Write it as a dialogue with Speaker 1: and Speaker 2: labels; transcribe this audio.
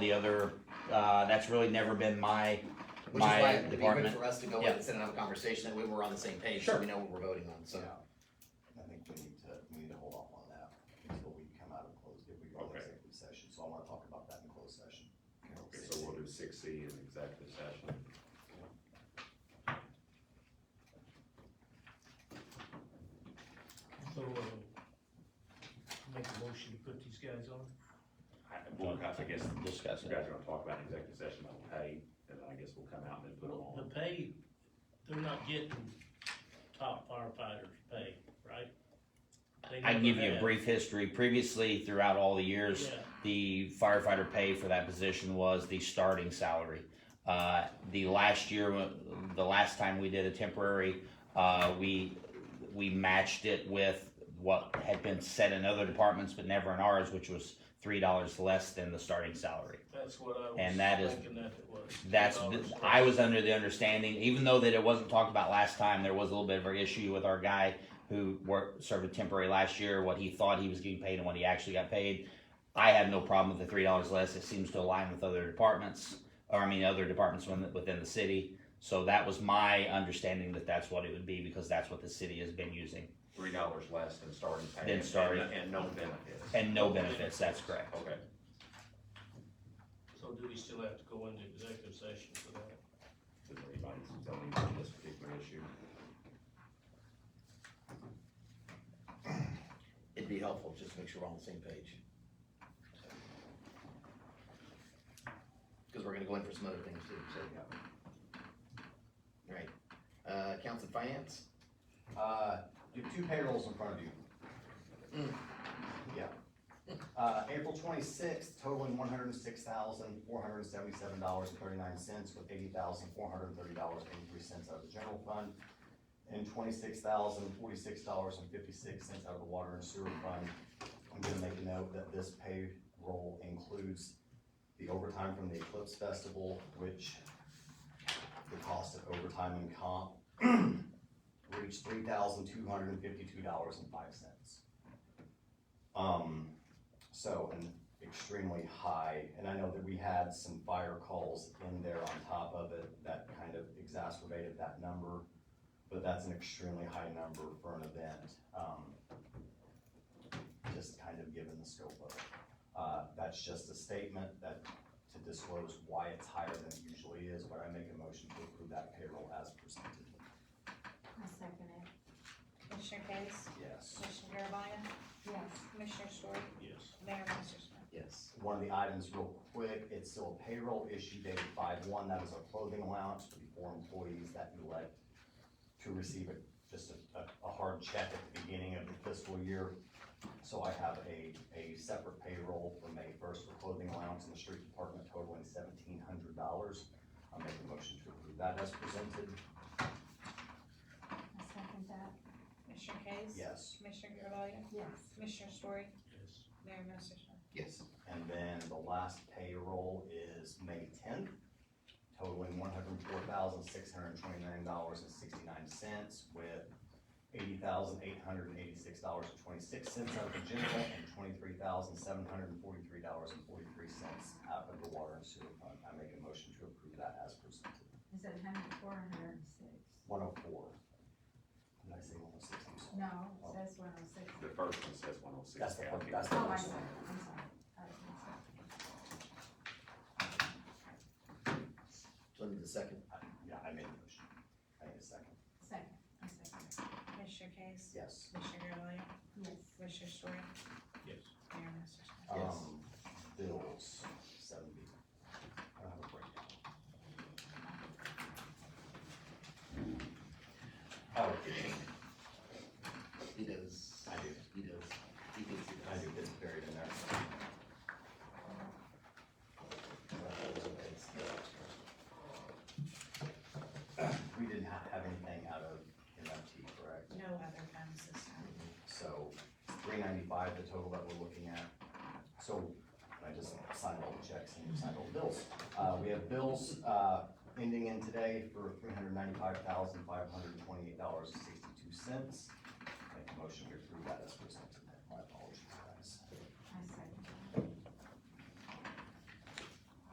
Speaker 1: The other, uh, that's really never been my,
Speaker 2: Which is why
Speaker 1: my
Speaker 2: it'd be good
Speaker 1: department.
Speaker 2: for us to go in
Speaker 1: Yeah.
Speaker 2: and sit and have a conversation, that we were on the same page, so
Speaker 1: Sure.
Speaker 2: we know what we're voting on, so.
Speaker 3: I think we need to, we need to hold off on that until we come out of closed, if we go to
Speaker 4: Okay.
Speaker 3: executive session, so I wanna talk about that in closed session.
Speaker 4: Okay, so we'll do six C in executive session.
Speaker 5: So, uh, make a motion to put these guys on?
Speaker 4: I, well, I guess you
Speaker 1: Discuss
Speaker 4: guys
Speaker 1: it.
Speaker 4: are gonna talk about in executive session about the pay, and then I guess we'll come out and then put them
Speaker 5: Well, the
Speaker 4: on.
Speaker 5: pay, they're not getting top firefighters pay, right? They
Speaker 1: I can give
Speaker 5: never
Speaker 1: you a
Speaker 5: have.
Speaker 1: brief history. Previously, throughout all the years,
Speaker 5: Yeah.
Speaker 1: the firefighter pay for that position was the starting salary. Uh, the last year, when- the last time we did a temporary, uh, we, we matched it with what had been set in other departments, but never in ours, which was three dollars less than the starting salary.
Speaker 5: That's what
Speaker 1: And
Speaker 5: I
Speaker 1: that is-
Speaker 5: was thinking that it was.
Speaker 1: That's,
Speaker 5: $10
Speaker 1: I was under the understanding, even though that it wasn't talked about last time, there was a little bit of an issue with our guy who worked, served a temporary last year, what he thought he was getting paid and what he actually got paid. I have no problem with the three dollars less. It seems to align with other departments, or I mean, other departments within, within the city. So that was my understanding that that's what it would be because that's what the city has been using.
Speaker 4: Three dollars less than starting pay.
Speaker 1: Than
Speaker 4: and-
Speaker 1: starting.
Speaker 4: And, and no benefits.
Speaker 1: And no benefits, that's correct.
Speaker 4: Okay,
Speaker 5: So do we still have to go into executive session for that?
Speaker 4: does anybody tell me about this particular issue?
Speaker 2: It'd be helpful, just to make sure we're on the same page. Cause we're gonna go in for some other things too, so. Right, uh, accounts and finance,
Speaker 3: Uh, you have two payrolls in front of you. Yeah. Uh, April twenty-sixth totaling one hundred and six thousand, four hundred and seventy-seven dollars and thirty-nine cents with eighty thousand, four hundred and thirty dollars, eighty-three cents out of the general fund. And twenty-six thousand, forty-six dollars and fifty-six cents out of the water and sewer fund. I'm gonna make a note that this payroll includes the overtime from the Eclipse Festival, which the cost of overtime and comp reached three thousand two hundred and fifty-two dollars and five cents. Um, so an extremely high, and I know that we had some fire calls in there on top of it that kind of exacerbated that number, but that's an extremely high number for an event, um, just kind of given the scope of it. Uh, that's just a statement that, to disclose why it's higher than it usually is, but I make a motion to approve that payroll as presented.
Speaker 6: I second it.
Speaker 7: Commissioner Case?
Speaker 3: Yes.
Speaker 7: Commissioner Garvelia?
Speaker 6: Yes.
Speaker 7: Commissioner Story?
Speaker 5: Yes.
Speaker 7: Mayor Massersohn?
Speaker 2: yes,
Speaker 3: one of the items real quick, it's still a payroll issue dated five one, that is our clothing allowance for the four employees that elect to receive it, just a, a, a hard check at the beginning of the fiscal year. So I have a, a separate payroll for May first for clothing allowance in the street department totaling seventeen hundred dollars. I'll make a motion to approve that as presented,
Speaker 6: I second that.
Speaker 7: Commissioner Case?
Speaker 3: yes.
Speaker 7: Commissioner Garvelia?
Speaker 6: Yes.
Speaker 7: Commissioner Story?
Speaker 5: Yes.
Speaker 7: Mayor Massersohn?
Speaker 2: yes,
Speaker 3: And then the last payroll is May tenth, totaling one hundred and four thousand, six hundred and twenty-nine dollars and sixty-nine cents with eighty thousand, eight hundred and eighty-six dollars and twenty-six cents out of the general and twenty-three thousand, seven hundred and forty-three dollars and forty-three cents out of the water and sewer fund. I make a motion to approve that as presented.
Speaker 6: Is it hundred, four hundred and six?
Speaker 3: One oh four. Did I say one oh six?
Speaker 6: No, it says one oh six.
Speaker 4: The first one says one oh six.
Speaker 3: That's the first- that's the
Speaker 6: Oh, I
Speaker 3: first
Speaker 6: see,
Speaker 3: one.
Speaker 6: I'm sorry. I was gonna
Speaker 2: so I need the second,
Speaker 3: I- Yeah, I made the motion. I need a second.
Speaker 6: say- Second, I second it.
Speaker 7: Commissioner Case?
Speaker 3: Yes.
Speaker 7: Commissioner Garvelia?
Speaker 6: Yes.
Speaker 7: Commissioner Story?
Speaker 5: Yes.
Speaker 7: Mayor Massersohn?
Speaker 2: Yes.
Speaker 3: Um, bills, seven B. I don't have a breakdown. Oh,
Speaker 2: he does,
Speaker 3: I do,
Speaker 2: he does, he thinks he
Speaker 3: I
Speaker 2: does.
Speaker 3: do, it's buried in there. We didn't have, have anything out of MFT, correct?
Speaker 7: No other funds this time.
Speaker 3: So three ninety-five, the total that we're looking at. So I just signed all the checks and signed all the bills. Uh, we have bills, uh, ending in today for three hundred ninety-five thousand, five hundred twenty-eight dollars and sixty-two cents. Make a motion to approve that as presented. My apologies.